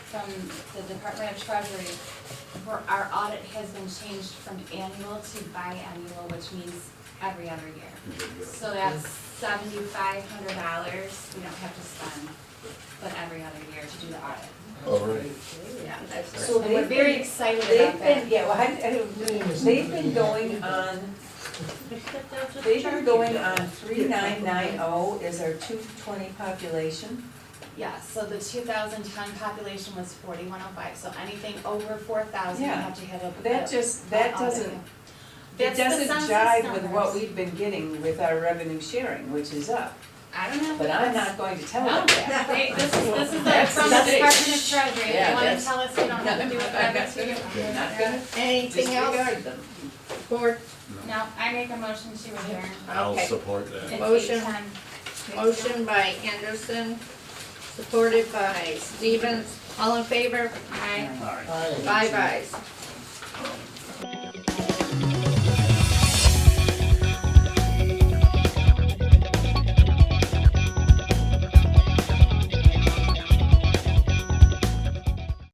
from the Department of Treasury, where our audit has been changed from annual to biannual, which means every other year. So that's seventy-five hundred dollars we don't have to spend, but every other year to do the audit. All right. Yeah, that's, So and we're they've very been- excited They've about that. been, yeah, well, I, I don't, they've been going on, they've been going on three nine nine oh is our two twenty population. Yeah, so the two thousand ten population was forty-one oh five, so anything over four thousand, we Yeah. have to have a. That just, that a- doesn't, it That's the doesn't census jive with what numbers. we've been getting with our revenue sharing, which is up. I don't know. if But I'm that's- not going to tell No, them that. they, this is, this is the, Oh, That's from the nothing. Department of Treasury, they Yeah, wanna that's- tell us we don't have to do it by the two. We're not gonna Anything else? disregard them. Board, No, I make a motion to adjourn. I'll Okay. support that. It's Motion. eight ten. motion by Anderson, supported by Stevens. All in favor? Aye. Aye. Five ayes.